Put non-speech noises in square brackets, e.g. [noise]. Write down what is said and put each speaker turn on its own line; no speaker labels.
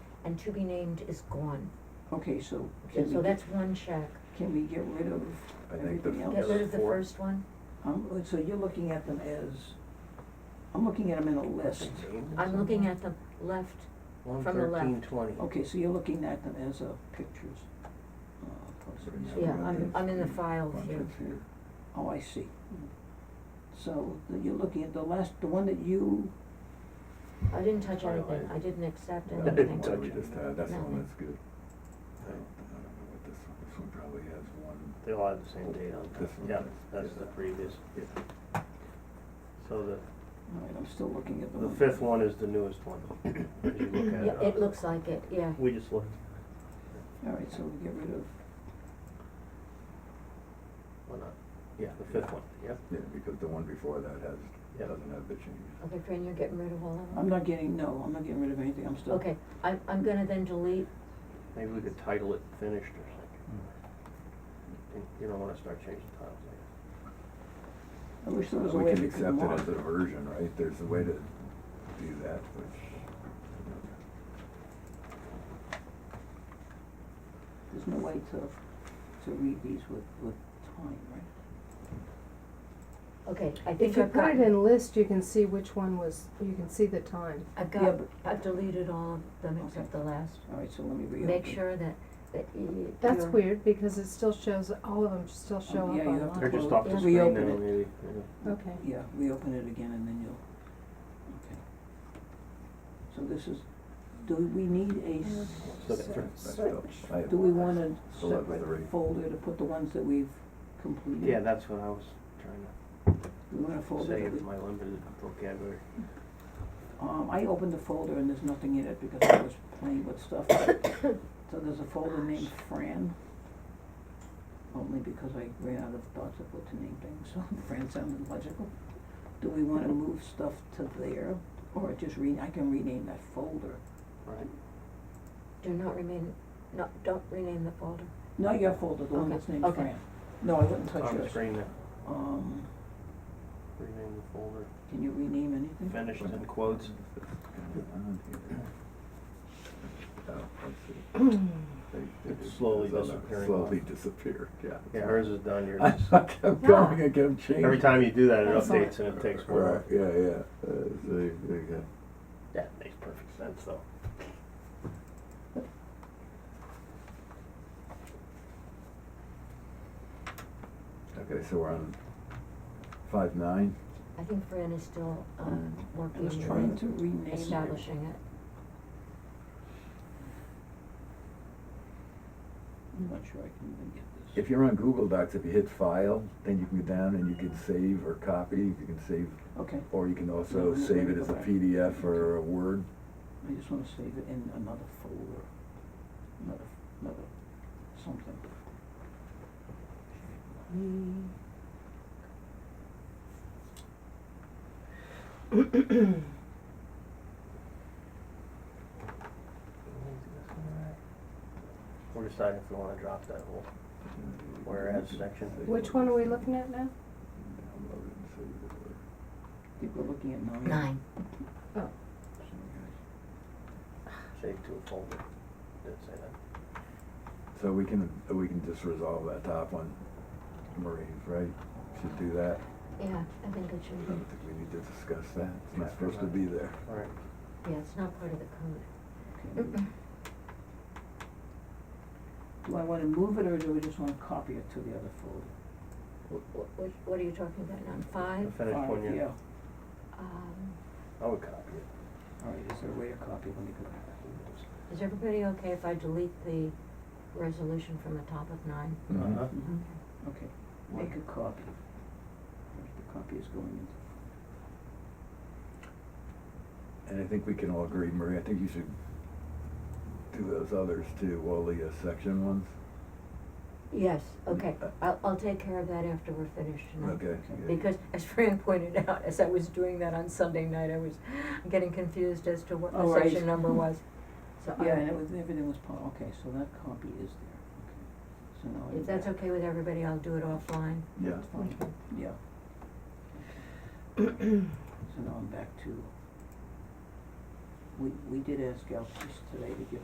and to be named is gone.
Okay, so can we,
So
get-
that's one check.
can we get rid of
I think the
everything else?
Get rid of the
Four.
first one.
Um, so you're looking at them as, I'm looking at them in a list.
I'm looking at the left,
One
from the left.
thirteen twenty.
Okay, so you're looking at them as uh, pictures. Uh,
Sorry,
posters.
Yeah,
yeah, I'm,
it's-
I'm in the file
One,
here.
two, three.
Oh, I see. So the- you're looking at the last, the one that you,
I didn't touch
Sorry,
anything,
I-
I didn't accept
[laughs] Yeah,
I
anything.
didn't
one
touch
we
it.
just had, that's the
Nothing.
one that's good. I don't, I don't know what this one, this one probably has one.
They all have the same date on them.
This one
Yeah,
does,
that's
yeah.
the previous.
Yeah.
So the,
all right, I'm still looking at the
the
one.
fifth one is the newest [coughs] one, as you look at it.
Yeah, it looks like it, yeah.
We just looked,
All right, so we get rid of,
why not? Yeah, the fifth one, yeah.
Yeah, because the one before that has,
Yeah.
doesn't have the changes.
Okay, Fran, you're getting rid of all of
I'm
them?
not getting, no, I'm not getting rid of anything, I'm still.
Okay, I'm, I'm gonna then delete,
Maybe we could title it finished or something. And You don't wanna start changing titles later.
I wish there was a
We
way
can
we could
accept it
mark.
as a version, right? There's a way to do that, which.
There's no way to, to read these with, with time, right?
okay, I
If
think
you
I've
put
got,
it in list, you can see which one was, you can see the time.
I've
Yeah,
got,
but-
I've deleted all of them except the last.
All right, so let me reopen.
Make sure that, that you.
That's
you're-
weird, because it still shows, all of them still show up
Oh, yeah, you
online.
have to
Or
Well,
just off the
yeah.
screen
reopen
now,
it.
maybe, yeah.
Okay.
Yeah, reopen it again and then you'll, okay. So this is, do we need a, s-
So that-
So-
That's
so-
dope. I have
do we
one.
want a
So that was three.
separate folder to put the ones that we've
Mm-hmm.
completed?
Yeah, that's what I was trying
We want a
to
folder
say
that we,
with my limited vocabulary.
um, I opened the folder and there's nothing in it because I was playing with stuff. So there's a folder named Fran, only because I ran out of thoughts of what to name things, so [laughs] Fran sounded logical. Do we wanna move stuff to there, or just re, I can rename that folder?
Right.
Do not remain, no, don't rename the folder.
Not your folder, the one
Okay,
that's named
okay.
Fran. No, I wouldn't touch
On the
yours.
screen now,
Um,
rename the folder,
can you rename anything?
finished in quotes.
Oh, let's see. They- they
It
just-
slowly
it's all
disappearing
Slowly
off.
disappeared, yeah.
Yeah, hers is done, yours
[laughs] I
is.
kept going, I kept changing.
Every time you do that, it
That's all.
updates and it takes
Right,
more.
yeah, yeah, uh, so, there you go.
That makes perfect sense, though.
Okay, so we're on five nine.
I think Fran is still, um,
Mm.
working
I was
Yeah.
trying
on
to rename.
establishing it.
I'm not sure I can even get this.
If you're on Google Docs, if you hit File, then you can go down and you can save or copy, you can save,
Okay,
or you can
No,
also
let me-
save
let me
it
go
as a
back.
PDF or a Word.
I just wanna save it in another folder, another, another, something.
Mm.
We're deciding if we wanna drop that whole, Whereas section.
[clears throat] Which one are we looking at now?
Download it and save it or-
I think we're looking at nine.
Nine.
Oh,
save to a folder, did it say that?
So we can, we can just resolve that top one, Marie's, right? Should do that.
Yeah, I think it
I
should
don't
be.
think we need to discuss that. It's not supposed to be there.
Alright,
Yeah, it's not part of the code.
Okay. Do I wanna move it or do I just wanna copy it to the other folder?
What, what, what are you talking about now?
the
Five?
finished one,
Alright,
yeah,
yeah,
Um,
I would copy it.
alright, is there a way to copy, let me go back.
is everybody okay if I delete the resolution from the top of nine?
Mhm.
Uh-huh.
Mhm. Okay, make a copy. The copy is going into.
And I think we can all agree, Marie, I think you should do those others too, all the uh, section ones.
Yes, okay,
Uh,
I'll, I'll take care of that after we're finished tonight.
Okay. yeah.
Because as Fran [laughs] pointed out, as I was doing that on Sunday night, I was getting confused as to what the
Oh, right.
section number was. So I-
Yeah, and it was, everything was, po- okay, so that copy is there, okay. So now I.
If that's okay with everybody, I'll do it offline.
Yeah.
That's fine, yeah. So now I'm back to, we, we did ask Gal Peace today to give